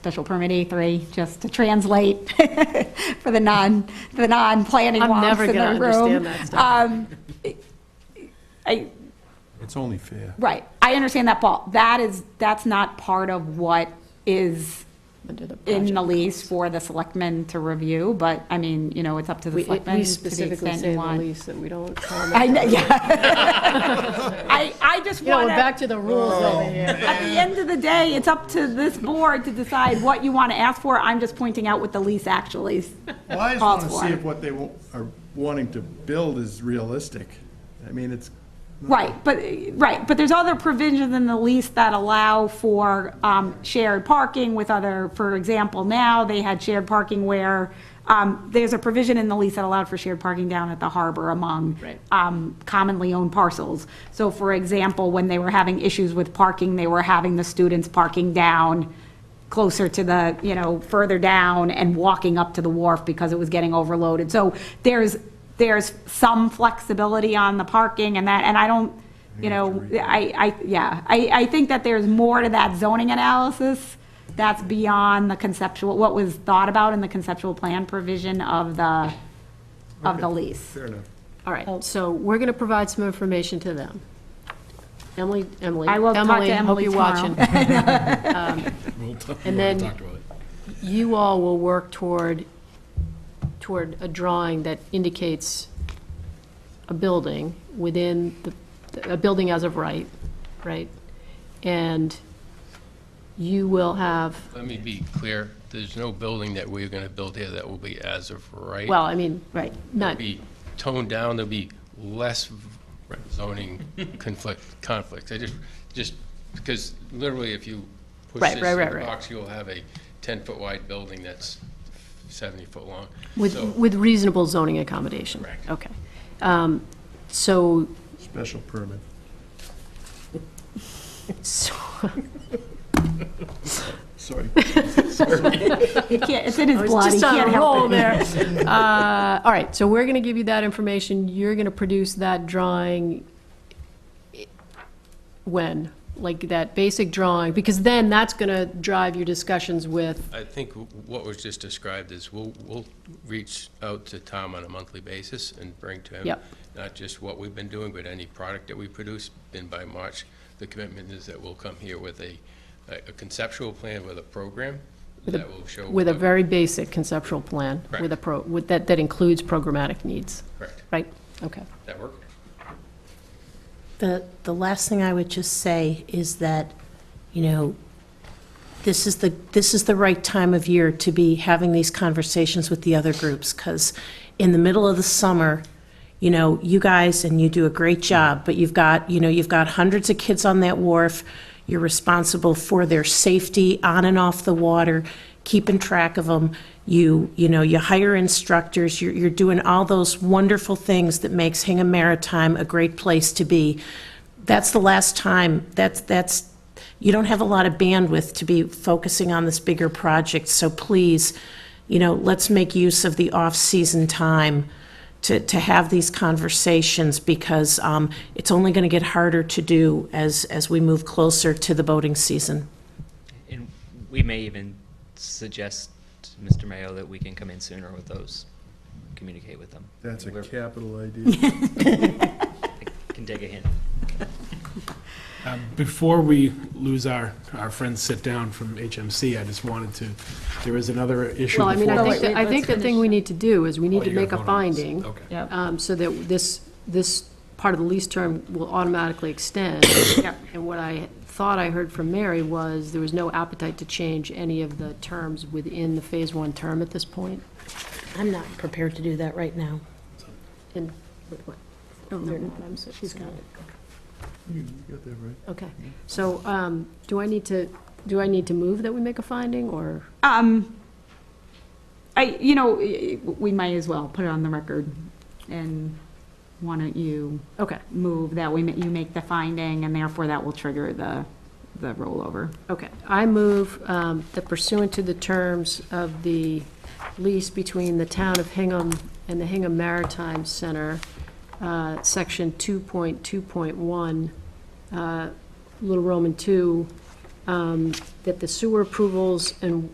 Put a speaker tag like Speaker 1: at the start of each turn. Speaker 1: special permit A3, just to translate for the non, the non-planning
Speaker 2: I'm
Speaker 1: wonks
Speaker 2: never
Speaker 1: in the
Speaker 2: gonna
Speaker 1: room.
Speaker 2: understand that
Speaker 1: Um, I,
Speaker 3: It's only fair.
Speaker 1: right, I understand that, Paul. That is, that's not part of what is
Speaker 2: under the
Speaker 1: in
Speaker 2: project.
Speaker 1: the lease for the selectmen to review, but, I mean, you know, it's up to the
Speaker 2: We-
Speaker 1: selectmen
Speaker 2: We
Speaker 1: to the
Speaker 2: specifically
Speaker 1: extent
Speaker 2: say
Speaker 1: you
Speaker 2: in the
Speaker 1: want.
Speaker 2: lease that we don't
Speaker 1: I
Speaker 2: comment.
Speaker 1: know, yeah. I, I just
Speaker 2: You know,
Speaker 1: want
Speaker 2: we're
Speaker 1: to.
Speaker 2: back to the rules over here.
Speaker 1: At the end of the day, it's up to this board to decide what you want to ask for. I'm just pointing out what the lease actually is.
Speaker 4: Well, I just
Speaker 1: Calls
Speaker 4: want to
Speaker 1: for.
Speaker 4: see if what they wa- are wanting to build is realistic. I mean, it's,
Speaker 1: Right, but, right, but there's other provisions in the lease that allow for um, shared parking with other, for example, now they had shared parking where, um, there's a provision in the lease that allowed for shared parking down at the harbor among
Speaker 2: Right.
Speaker 1: um, commonly owned parcels. So for example, when they were having issues with parking, they were having the students parking down closer to the, you know, further down and walking up to the wharf because it was getting overloaded. So there's, there's some flexibility on the parking and that, and I don't, you know, I, I, yeah, I, I think that there's more to that zoning analysis that's beyond the conceptual, what was thought about in the conceptual plan provision of the, of the lease.
Speaker 4: fair enough.
Speaker 2: All right, so we're going to provide some information to them. Emily, Emily.
Speaker 1: I will talk to Emily tomorrow.
Speaker 2: Hope you're watching. Um, And then you all will work toward, toward a drawing that indicates a building within, the- a building as of right, right? And you will have,
Speaker 5: Let me be clear, there's no building that we're going to build here that will be as of right.
Speaker 2: well, I mean,
Speaker 1: Right.
Speaker 2: not,
Speaker 5: Be toned down, there'll be less zoning conflict, conflicts. I just, just, because literally if you push
Speaker 2: Right,
Speaker 5: this
Speaker 2: right,
Speaker 5: in
Speaker 2: right,
Speaker 5: the
Speaker 2: right.
Speaker 5: box, you'll have a 10-foot wide building that's 70-foot long.
Speaker 2: with,
Speaker 5: So-
Speaker 2: with reasonable zoning accommodation.
Speaker 5: Correct.
Speaker 2: Okay. Um, So
Speaker 4: Special permit.
Speaker 2: So,
Speaker 4: Sorry.
Speaker 1: You can't, it's in his
Speaker 2: I was
Speaker 1: blood, he
Speaker 2: just on
Speaker 1: can't
Speaker 2: a
Speaker 1: help
Speaker 2: roll
Speaker 1: it.
Speaker 2: there. Uh, All right, so we're going to give you that information. You're going to produce that drawing i- when? Like that basic drawing? Because then that's going to drive your discussions with,
Speaker 5: I think what was just described is we'll, we'll reach out to Tom on a monthly basis and bring to him
Speaker 2: Yep.
Speaker 5: not just what we've been doing, but any product that we produce. Then by March, the commitment is that we'll come here with a, a conceptual plan with a program that will show.
Speaker 2: with a
Speaker 5: what-
Speaker 2: very basic conceptual plan, with a pro, with, that, that includes programmatic needs,
Speaker 5: Correct.
Speaker 2: right? Okay.
Speaker 5: That work?
Speaker 6: The, the last thing I would just say is that, you know, this is the, this is the right time of year to be having these conversations with the other groups, because in the middle of the summer, you know, you guys, and you do a great job, but you've got, you know, you've got hundreds of kids on that wharf. You're responsible for their safety on and off the water, keeping track of them. You, you know, you hire instructors, you're, you're doing all those wonderful things that makes Hingham Maritime a great place to be. That's the last time, that's, that's, you don't have a lot of bandwidth to be focusing on this bigger project, so please, you know, let's make use of the off-season time to, to have these conversations, because um, it's only going to get harder to do as, as we move closer to the boating season.
Speaker 7: And we may even suggest to Mr. Mayo that we can come in sooner with those, communicate with them.
Speaker 4: That's a
Speaker 7: We're-
Speaker 4: capital idea.
Speaker 7: I Can take a hint.
Speaker 8: Before we lose our, our friends sit down from HMC, I just wanted to, there is another issue.
Speaker 2: Well, I mean, I
Speaker 8: before
Speaker 2: think,
Speaker 8: us.
Speaker 2: that- I think the thing we need to do is we
Speaker 8: Oh,
Speaker 2: need to
Speaker 8: you're gonna
Speaker 2: make a
Speaker 8: vote on this.
Speaker 2: finding.
Speaker 8: Okay.
Speaker 2: um, so that this, this part of the lease term will automatically extend. And what I thought I heard from Mary was there was no appetite to change any of the terms within the Phase One term at this point.
Speaker 6: I'm not prepared to do that right now.
Speaker 2: And, what, they're not, Oh, I'm sorry, she's got it.
Speaker 4: You got that right.
Speaker 2: Okay, so, um, do I need to, do I need to move that we make a finding, or?
Speaker 1: Um, I, you know, i- i- we might as well put it on the record, and why don't you
Speaker 2: Okay,
Speaker 1: move that we, ma- you make the finding, and therefore that will trigger the, the rollover.
Speaker 2: okay. I move um, that pursuant to the terms of the lease between the town of Hingham and the Hingham Maritime Center, uh, Section 2.2.1, uh, Little Roman 2, um, that the sewer approvals and